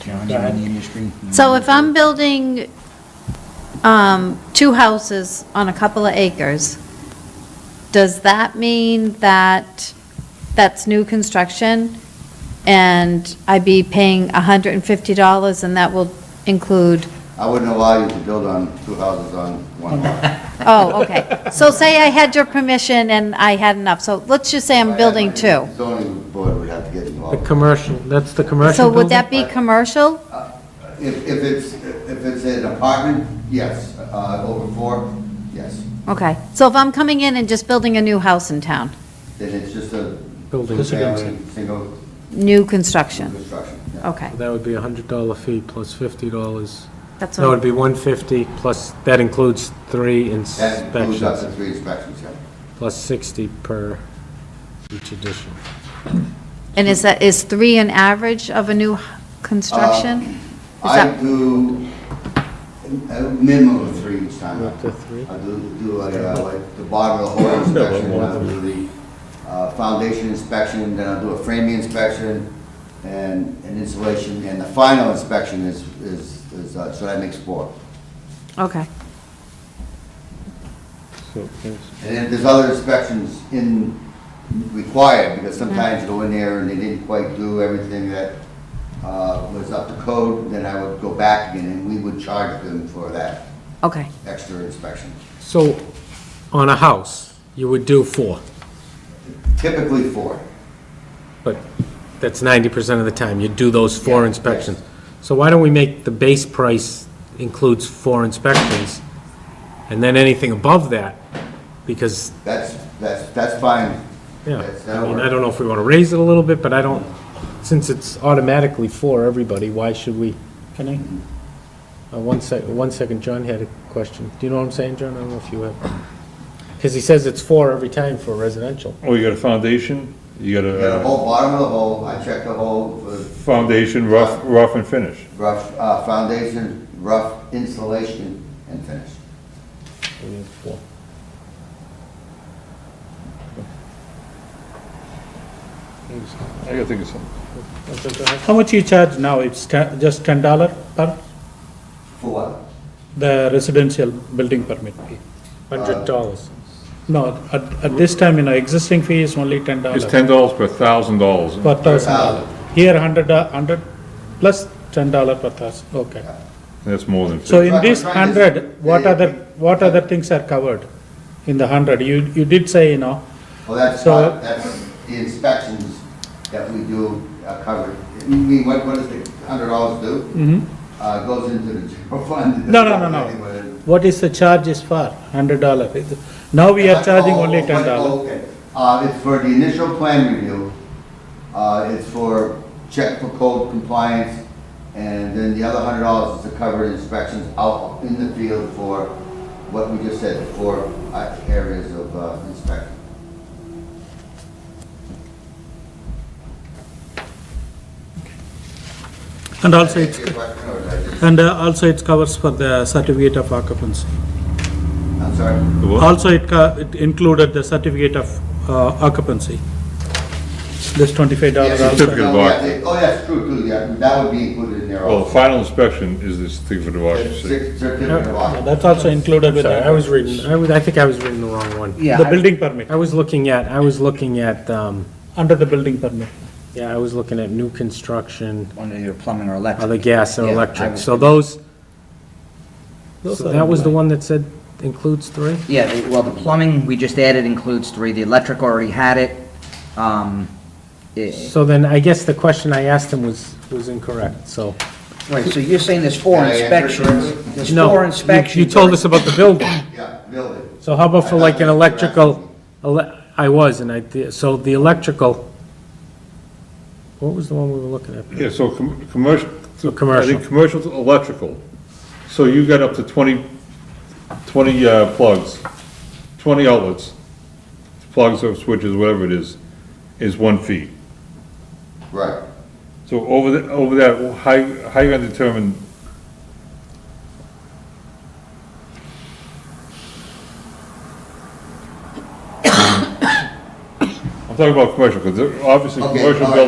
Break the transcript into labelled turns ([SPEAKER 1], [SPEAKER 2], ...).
[SPEAKER 1] John's in the industry.
[SPEAKER 2] So if I'm building um, two houses on a couple of acres, does that mean that that's new construction? And I'd be paying $150 and that will include,
[SPEAKER 3] I wouldn't allow you to build on two houses on one lot.
[SPEAKER 2] oh, okay. So say I had your permission and I had enough, so let's just say I'm building two.
[SPEAKER 3] Zoning board would have to get
[SPEAKER 4] The
[SPEAKER 3] involved.
[SPEAKER 4] commercial, that's the commercial
[SPEAKER 2] So
[SPEAKER 4] building?
[SPEAKER 2] would that be commercial?
[SPEAKER 3] If, if it's, if it's an apartment, yes, uh, over four, yes,
[SPEAKER 2] Okay, so if I'm coming in and just building a new house in town,
[SPEAKER 3] then it's just a
[SPEAKER 4] Building.
[SPEAKER 3] two-family, single
[SPEAKER 2] new construction,
[SPEAKER 3] construction. yeah.
[SPEAKER 2] okay,
[SPEAKER 4] That would be a hundred dollar fee plus fifty dollars.
[SPEAKER 2] that's
[SPEAKER 4] That
[SPEAKER 2] what,
[SPEAKER 4] would be one fifty plus, that includes three
[SPEAKER 3] That includes up to
[SPEAKER 4] inspections,
[SPEAKER 3] three inspections, yeah.
[SPEAKER 4] plus sixty per each addition.
[SPEAKER 2] and is that, is three an average of a new h- construction? Is
[SPEAKER 3] I
[SPEAKER 2] that-
[SPEAKER 3] do a minimum of three each time.
[SPEAKER 4] Up to three?
[SPEAKER 3] I do, do like, uh, like the bottom of the whole inspection, and I'll do the uh, foundation inspection, then I'll do a framing inspection and an insulation, and the final inspection is, is, is, uh, so that makes four.
[SPEAKER 2] Okay,
[SPEAKER 3] And then there's other inspections in, required, because
[SPEAKER 2] Mm-hmm.
[SPEAKER 3] sometimes you go in there and they didn't quite do everything that uh, was up to code, then I would go back again, and we would charge them for that
[SPEAKER 2] okay,
[SPEAKER 3] extra inspection.
[SPEAKER 4] So, on a house, you would do four,
[SPEAKER 3] Typically four.
[SPEAKER 4] but that's ninety percent of the time, you do those four
[SPEAKER 3] Yeah,
[SPEAKER 4] inspections. So why don't we make the base price includes four inspections, and then anything above that, because
[SPEAKER 3] That's, that's, that's fine.
[SPEAKER 4] Yeah,
[SPEAKER 3] That's-
[SPEAKER 4] I
[SPEAKER 3] that'll
[SPEAKER 4] mean, I
[SPEAKER 3] work.
[SPEAKER 4] don't know if we want to raise it a little bit, but I don't, since it's automatically for everybody, why should we?
[SPEAKER 1] Can I?
[SPEAKER 4] Uh, One sec, one second, John had a question. Do you know what I'm saying, John? I don't know if you have. Because he says it's four every time for residential.
[SPEAKER 5] Oh, you got a foundation, you got
[SPEAKER 3] You got a
[SPEAKER 5] a uh,
[SPEAKER 3] whole bottom of the hole, I checked the hole for
[SPEAKER 5] foundation, rough, rough and finish.
[SPEAKER 3] rough, uh, foundation, rough insulation and finish.
[SPEAKER 4] We need four.
[SPEAKER 5] I gotta think of something.
[SPEAKER 4] That's it, go ahead.
[SPEAKER 1] How much you charge now? It's ten- just ten dollar per
[SPEAKER 3] For what?
[SPEAKER 1] the residential building permit fee?
[SPEAKER 4] Hundred dollars.
[SPEAKER 1] No, at, at this time, you know, existing fee is only ten dollar.
[SPEAKER 5] It's ten dollars per thousand dollars.
[SPEAKER 1] Per thousand
[SPEAKER 3] thousand.
[SPEAKER 1] dollar. Here, hundred, do- hundred plus ten dollar per thousand, okay.
[SPEAKER 5] That's more than
[SPEAKER 1] So
[SPEAKER 5] fifty.
[SPEAKER 1] in this
[SPEAKER 3] Right, right, is-
[SPEAKER 1] hundred, what
[SPEAKER 3] yeah, yeah.
[SPEAKER 1] other, what other things are covered in the hundred? You, you did say, you know,
[SPEAKER 3] Well, that's,
[SPEAKER 1] So-
[SPEAKER 3] not- that's the inspections that we do uh, covered. I mean, what, what does the hundred dollars do?
[SPEAKER 1] mhm.
[SPEAKER 3] Uh, goes into the general fund.
[SPEAKER 1] No, no, no, no. What is the charge is for, hundred dollar? Now we are charging only
[SPEAKER 3] Oh,
[SPEAKER 1] ten dollar.
[SPEAKER 3] oh, Okay, uh, it's for the initial plan review, uh, it's for check for code compliance, and then the other hundred dollars is to cover inspections out in the field for what we just said, for uh, areas of uh, inspection.
[SPEAKER 1] And also it's,
[SPEAKER 3] Your question, or did I just-
[SPEAKER 1] and uh, also it covers for the certificate of occupancy.
[SPEAKER 3] I'm sorry,
[SPEAKER 5] The what?
[SPEAKER 1] Also, it co- it included the certificate of uh, occupancy. This twenty-five dollar
[SPEAKER 3] Yes,
[SPEAKER 1] also.
[SPEAKER 5] certificate.
[SPEAKER 3] No,
[SPEAKER 5] of
[SPEAKER 3] yeah,
[SPEAKER 5] occupancy.
[SPEAKER 3] they- oh, that's true, too, yeah, that would be included in there
[SPEAKER 5] Well, the
[SPEAKER 3] also.
[SPEAKER 5] final inspection is this thing for the occupancy.
[SPEAKER 3] Cer- Certificate of
[SPEAKER 1] Yeah,
[SPEAKER 3] occupancy.
[SPEAKER 1] That's also included with
[SPEAKER 4] Sorry, I was
[SPEAKER 1] the,
[SPEAKER 4] reading, I was, I think I was reading the wrong one.
[SPEAKER 1] the building permit,
[SPEAKER 4] I was looking at, I was looking at, um,
[SPEAKER 1] under the building permit.
[SPEAKER 4] yeah, I was looking at new construction,
[SPEAKER 1] Under your plumbing or
[SPEAKER 4] other gas and
[SPEAKER 3] Yeah, I
[SPEAKER 4] electric.
[SPEAKER 6] was-
[SPEAKER 4] So those,
[SPEAKER 1] Those
[SPEAKER 4] so
[SPEAKER 1] are
[SPEAKER 4] that was the one
[SPEAKER 1] online.
[SPEAKER 4] that said includes three?
[SPEAKER 6] Yeah, the- well, the plumbing we just added includes three, the electric already had it. Um, eh,
[SPEAKER 4] So then I guess the question I asked him was, was incorrect, so.
[SPEAKER 6] Right, so you're saying there's four
[SPEAKER 3] Can I answer
[SPEAKER 6] inspections?
[SPEAKER 3] correctly?
[SPEAKER 6] There's
[SPEAKER 4] No,
[SPEAKER 6] four
[SPEAKER 4] you-
[SPEAKER 6] inspections.
[SPEAKER 4] You told us about the building,
[SPEAKER 3] Yeah, building.
[SPEAKER 4] so how about for like an
[SPEAKER 3] I thought you were
[SPEAKER 4] electrical, ele- I was, and I, did- so the electrical, what was the one we were looking at?
[SPEAKER 5] Yeah, so com- commercial.
[SPEAKER 4] So commercial.
[SPEAKER 5] I think commercial to electrical. So you got up to twenty, twenty uh, plugs, twenty outlets, plugs or switches, whatever it is, is one fee.
[SPEAKER 3] Right.
[SPEAKER 5] So over the, over that, how, you- how you gonna determine I'm talking about commercial, because obviously
[SPEAKER 3] Okay, all right.
[SPEAKER 5] commercial buildings